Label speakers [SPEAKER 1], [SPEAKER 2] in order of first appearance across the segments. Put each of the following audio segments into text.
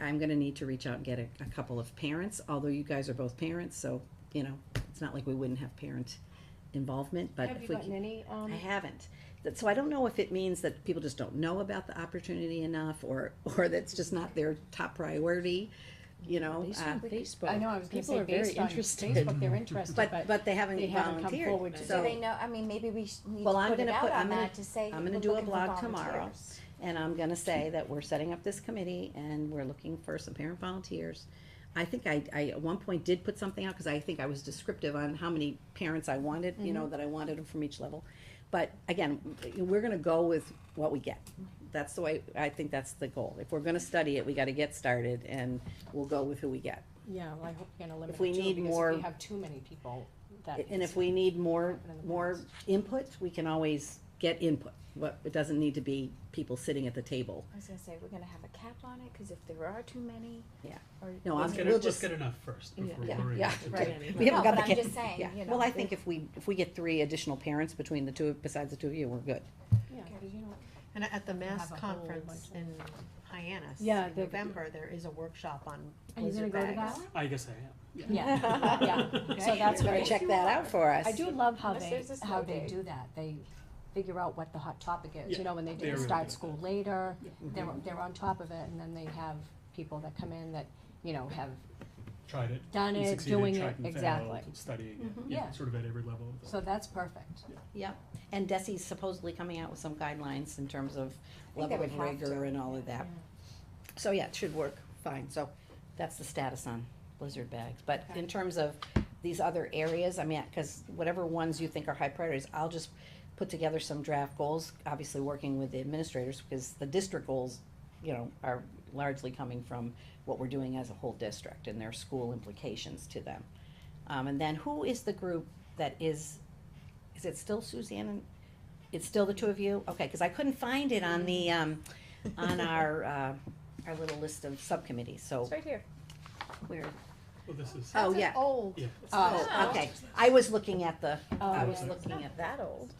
[SPEAKER 1] I'm gonna need to reach out and get a, a couple of parents, although you guys are both parents, so, you know, it's not like we wouldn't have parent involvement, but
[SPEAKER 2] Have
[SPEAKER 1] if
[SPEAKER 2] you
[SPEAKER 1] we
[SPEAKER 2] gotten
[SPEAKER 1] can-
[SPEAKER 2] any, um,
[SPEAKER 1] I haven't. That- So I don't know if it means that people just don't know about the opportunity enough, or, or that's just not their top priority, you know?
[SPEAKER 3] Based
[SPEAKER 1] uh,
[SPEAKER 3] on Facebook.
[SPEAKER 2] I know, I was gonna
[SPEAKER 3] People
[SPEAKER 2] say
[SPEAKER 3] are very
[SPEAKER 2] based on
[SPEAKER 3] interested.
[SPEAKER 2] Facebook, they're interested,
[SPEAKER 1] But,
[SPEAKER 2] but
[SPEAKER 1] but they haven't
[SPEAKER 2] they haven't come
[SPEAKER 1] volunteered,
[SPEAKER 2] forward to
[SPEAKER 1] so.
[SPEAKER 4] Do they know, I mean, maybe we sh- need
[SPEAKER 1] Well,
[SPEAKER 4] to
[SPEAKER 1] I'm
[SPEAKER 4] put it
[SPEAKER 1] gonna
[SPEAKER 4] out
[SPEAKER 1] put- I'm
[SPEAKER 4] on
[SPEAKER 1] gonna-
[SPEAKER 4] that to say.
[SPEAKER 1] I'm gonna
[SPEAKER 4] we're
[SPEAKER 1] do a
[SPEAKER 4] looking for
[SPEAKER 1] blog tomorrow.
[SPEAKER 4] volunteers.
[SPEAKER 1] And I'm gonna say that we're setting up this committee and we're looking for some parent volunteers. I think I, I at one point did put something out, cause I think I was descriptive on how many parents I wanted, you know, that I wanted them from each level. But again, we're gonna go with what we get. That's the way, I think that's the goal. If we're gonna study it, we gotta get started and we'll go with who we get.
[SPEAKER 2] yeah, well, I hope you're gonna limit
[SPEAKER 1] If we
[SPEAKER 2] it too,
[SPEAKER 1] need
[SPEAKER 2] because
[SPEAKER 1] more-
[SPEAKER 2] if we have too many people, that.
[SPEAKER 1] And if we need more, more input, we can always get input. What, it doesn't need to be people sitting at the table.
[SPEAKER 4] I was gonna say, we're gonna have a cap on it, cause if there are too many.
[SPEAKER 1] Yeah.
[SPEAKER 4] or-
[SPEAKER 1] No, I'm
[SPEAKER 5] Let's
[SPEAKER 1] gonna,
[SPEAKER 5] get,
[SPEAKER 1] we'll
[SPEAKER 5] it- let's
[SPEAKER 1] just,
[SPEAKER 5] get enough first
[SPEAKER 4] Yeah,
[SPEAKER 5] before
[SPEAKER 1] yeah,
[SPEAKER 5] worrying.
[SPEAKER 1] yeah,
[SPEAKER 5] about the
[SPEAKER 1] right.
[SPEAKER 5] detail.
[SPEAKER 1] we haven't
[SPEAKER 4] No,
[SPEAKER 1] got the
[SPEAKER 4] but I'm
[SPEAKER 1] kid.
[SPEAKER 4] just saying,
[SPEAKER 1] Yeah.
[SPEAKER 4] you know,
[SPEAKER 1] Well, I
[SPEAKER 4] if-
[SPEAKER 1] think if we, if we get three additional parents between the two, besides the two of you, we're good.
[SPEAKER 2] Yeah, 'cause you know,
[SPEAKER 6] And at the
[SPEAKER 2] have
[SPEAKER 6] Mass
[SPEAKER 2] a whole
[SPEAKER 6] Conference
[SPEAKER 2] bunch
[SPEAKER 6] in Hyannis,
[SPEAKER 2] Yeah,
[SPEAKER 6] in
[SPEAKER 2] the-
[SPEAKER 6] November, there is a workshop on
[SPEAKER 2] Are you gonna
[SPEAKER 6] blizzard
[SPEAKER 2] go to
[SPEAKER 6] bags.
[SPEAKER 5] I guess I am.
[SPEAKER 2] yeah, yeah, so that's
[SPEAKER 1] Better
[SPEAKER 2] great.
[SPEAKER 1] Check that out for us.
[SPEAKER 2] I do love how
[SPEAKER 4] Unless
[SPEAKER 2] they,
[SPEAKER 4] there's a snow
[SPEAKER 2] how they
[SPEAKER 4] day.
[SPEAKER 2] do that, they figure out what the hot topic is, you
[SPEAKER 5] Yeah,
[SPEAKER 2] know, when they
[SPEAKER 5] they're
[SPEAKER 2] do the
[SPEAKER 5] really good
[SPEAKER 2] start
[SPEAKER 5] at
[SPEAKER 2] school later,
[SPEAKER 5] Yeah.
[SPEAKER 2] they're,
[SPEAKER 1] Mm-hmm.
[SPEAKER 2] they're on top of it, and then they have people that come in that, you know, have,
[SPEAKER 5] Tried it.
[SPEAKER 2] Done
[SPEAKER 5] and
[SPEAKER 2] it,
[SPEAKER 5] succeeded,
[SPEAKER 2] doing
[SPEAKER 5] tried
[SPEAKER 2] it,
[SPEAKER 5] and failed,
[SPEAKER 2] exactly.
[SPEAKER 5] Studying it,
[SPEAKER 1] Mm-hmm.
[SPEAKER 2] Yeah.
[SPEAKER 5] yeah, sort of at every level. of the-
[SPEAKER 2] so that's perfect.
[SPEAKER 1] Yep. And Desi's supposedly coming out with some guidelines in terms of level
[SPEAKER 4] think they
[SPEAKER 1] of
[SPEAKER 4] would have
[SPEAKER 1] rigor
[SPEAKER 4] to.
[SPEAKER 1] and all of that. So yeah, it should work fine. So that's the status on blizzard bags. But in terms of these other areas, I mean, because whatever ones you think are high priorities, I'll just put together some draft goals, obviously working with the administrators, because the district goals, you know, are largely coming from what we're doing as a whole district and their school implications to them. Um, and then who is the group that is, is it still Suzanne and, it's still the two of you? Okay, because I couldn't find it on the, um, on our, uh, our little list of subcommittees, so
[SPEAKER 4] It's right here.
[SPEAKER 1] we're,
[SPEAKER 5] Well, this is,
[SPEAKER 1] oh, yeah.
[SPEAKER 6] Old.
[SPEAKER 5] yeah.
[SPEAKER 2] Uh,
[SPEAKER 1] Oh, okay, I was looking at the, I
[SPEAKER 2] Oh,
[SPEAKER 1] was
[SPEAKER 2] yeah.
[SPEAKER 1] looking at that.
[SPEAKER 4] That old.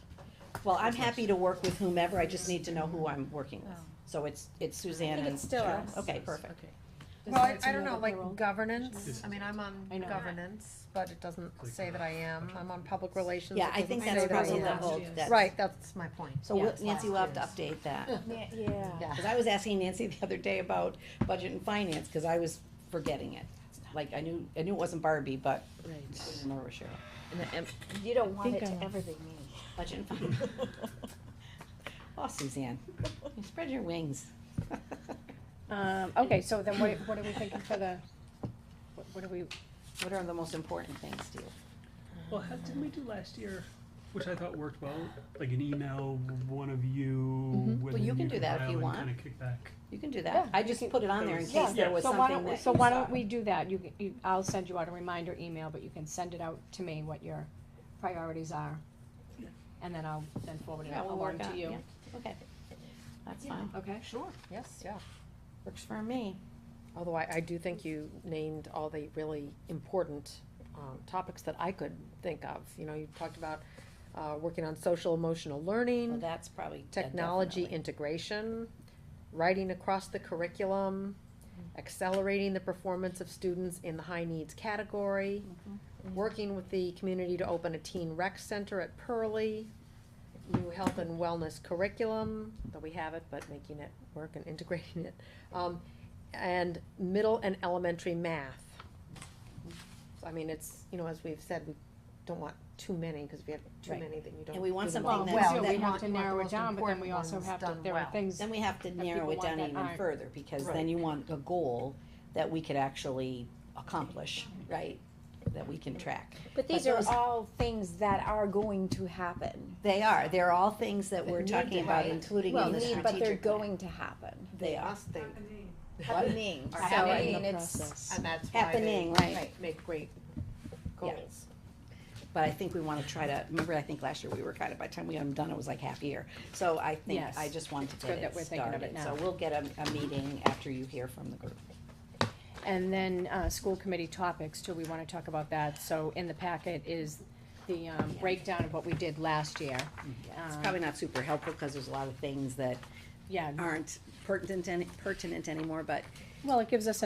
[SPEAKER 1] Well, I'm happy to work with whomever, I just need to know who I'm working with.
[SPEAKER 4] Oh.
[SPEAKER 1] So it's, it's Suzanne and.
[SPEAKER 4] it's still
[SPEAKER 1] Cheryl.
[SPEAKER 4] us.
[SPEAKER 1] Okay, perfect.
[SPEAKER 6] Well, I,
[SPEAKER 2] Does
[SPEAKER 6] I
[SPEAKER 2] that
[SPEAKER 6] don't
[SPEAKER 2] seem
[SPEAKER 6] know,
[SPEAKER 2] like
[SPEAKER 6] like
[SPEAKER 2] a role?
[SPEAKER 6] governance,
[SPEAKER 5] This
[SPEAKER 6] I mean, I'm on
[SPEAKER 2] I know. uh, uh-huh.
[SPEAKER 6] governance, but it doesn't
[SPEAKER 5] Click
[SPEAKER 6] say that I am, I'm on public relations.
[SPEAKER 1] Yeah, I
[SPEAKER 6] it doesn't
[SPEAKER 1] think
[SPEAKER 6] say
[SPEAKER 1] that's
[SPEAKER 6] that I
[SPEAKER 1] probably the
[SPEAKER 6] am.
[SPEAKER 1] whole, that's.
[SPEAKER 6] Right, that's my point.
[SPEAKER 1] So we'll-
[SPEAKER 2] Yeah, it's
[SPEAKER 1] Nancy will have
[SPEAKER 2] last
[SPEAKER 1] to update that.
[SPEAKER 4] Yeah, yeah.
[SPEAKER 1] Because I was asking Nancy the other day about budget and finance, because I was forgetting it. Like, I knew, I knew it wasn't Barbie, but I
[SPEAKER 3] Right.
[SPEAKER 1] didn't remember Cheryl.
[SPEAKER 4] You don't want it
[SPEAKER 3] think
[SPEAKER 4] to
[SPEAKER 3] I'm-
[SPEAKER 4] ever be me.
[SPEAKER 1] Budget and finance. Oh, Suzanne, you spread your wings.
[SPEAKER 2] Um, okay, so then what, what are we thinking for the, what- what are we,
[SPEAKER 1] What are the most important things to you?
[SPEAKER 5] Well, how didn't we do last year? Which I thought worked well, like an email, one of you.
[SPEAKER 1] Mm-hmm. Well, you can do that if you want.
[SPEAKER 5] Kind of kick back.
[SPEAKER 1] You can do that. I just put it on there in
[SPEAKER 5] Yeah,
[SPEAKER 1] case there was
[SPEAKER 2] so why
[SPEAKER 1] something
[SPEAKER 2] don't, we-
[SPEAKER 1] that
[SPEAKER 2] so
[SPEAKER 1] you
[SPEAKER 2] why
[SPEAKER 1] saw.
[SPEAKER 2] don't we do that, you, can- you, I'll send you out a reminder email, but you can send it out to me what your priorities are. And then I'll then forward it
[SPEAKER 1] Yeah,
[SPEAKER 2] out
[SPEAKER 1] we'll
[SPEAKER 2] along
[SPEAKER 1] work out,
[SPEAKER 2] to you,
[SPEAKER 1] yeah, okay. That's fine,
[SPEAKER 2] okay?
[SPEAKER 6] Sure, yes, yeah.
[SPEAKER 1] works for me.
[SPEAKER 6] Although I, I do think you named all the really important, um, topics that I could think of, you know, you talked about, uh, working on social emotional
[SPEAKER 1] Well,
[SPEAKER 6] learning,
[SPEAKER 1] that's probably. yeah,
[SPEAKER 6] technology
[SPEAKER 1] definitely.
[SPEAKER 6] integration, writing across the curriculum,
[SPEAKER 1] Mm-hmm.
[SPEAKER 6] accelerating the performance of students in the high needs category,
[SPEAKER 1] Mm-hmm.
[SPEAKER 6] working with the community to open a teen rec center at Pearlie, new health and wellness curriculum, though we have it, but making it work and integrating it, um, and middle and elementary math. So I mean, it's, you know, as we've said, we don't want too many, cause if you have too
[SPEAKER 1] Right.
[SPEAKER 6] many, then you don't.
[SPEAKER 1] And we want
[SPEAKER 6] do them
[SPEAKER 1] something
[SPEAKER 6] all.
[SPEAKER 2] Well,
[SPEAKER 1] that-
[SPEAKER 2] we do,
[SPEAKER 1] that-
[SPEAKER 2] we have to
[SPEAKER 6] want- want the
[SPEAKER 2] narrow it
[SPEAKER 6] most
[SPEAKER 2] down, but then we
[SPEAKER 6] important
[SPEAKER 2] also
[SPEAKER 6] ones
[SPEAKER 2] have to,
[SPEAKER 6] done
[SPEAKER 2] there are
[SPEAKER 6] well.
[SPEAKER 2] things,
[SPEAKER 1] Then we have to
[SPEAKER 2] that
[SPEAKER 1] narrow
[SPEAKER 2] people
[SPEAKER 1] it
[SPEAKER 2] want
[SPEAKER 1] down
[SPEAKER 2] that
[SPEAKER 1] even
[SPEAKER 2] aren't-
[SPEAKER 1] further, because then
[SPEAKER 5] Right.
[SPEAKER 1] you want a goal that we could actually accomplish, right? That we can track.
[SPEAKER 4] But these are
[SPEAKER 1] those-
[SPEAKER 4] all things that are going to happen.
[SPEAKER 1] They are, they're all things that
[SPEAKER 6] That
[SPEAKER 1] we're
[SPEAKER 6] need
[SPEAKER 1] talking
[SPEAKER 6] to
[SPEAKER 1] about,
[SPEAKER 6] happen.
[SPEAKER 1] including
[SPEAKER 4] Well,
[SPEAKER 1] in the
[SPEAKER 4] need, but they're
[SPEAKER 1] strategic plan.
[SPEAKER 4] going to happen.
[SPEAKER 1] They are,
[SPEAKER 6] Us, they-
[SPEAKER 4] Happening, so I
[SPEAKER 6] happening.
[SPEAKER 4] mean,
[SPEAKER 3] The
[SPEAKER 4] it's,
[SPEAKER 3] process.
[SPEAKER 6] And that's why they
[SPEAKER 1] happening, right?
[SPEAKER 6] make great
[SPEAKER 1] Yeah.
[SPEAKER 6] goals.
[SPEAKER 1] But I think we wanna try to, remember, I think last year we were kind of, by the time we had them done, it was like half year. So I think,
[SPEAKER 2] Yes.
[SPEAKER 1] I just wanted to
[SPEAKER 2] good
[SPEAKER 1] get
[SPEAKER 2] that we're
[SPEAKER 1] it
[SPEAKER 2] thinking of
[SPEAKER 1] started,
[SPEAKER 2] it
[SPEAKER 1] so
[SPEAKER 2] now.
[SPEAKER 1] we'll get a, a meeting after you hear from the group.
[SPEAKER 2] and then, uh, school committee topics too, we wanna talk about that, so in the packet is the, um, breakdown of what we did last year.
[SPEAKER 1] Yeah, It's
[SPEAKER 2] Um,
[SPEAKER 1] probably not super helpful, cause there's a lot of things that
[SPEAKER 2] Yeah,
[SPEAKER 1] aren't pertinent, any- pertinent anymore, but
[SPEAKER 2] Well, it gives us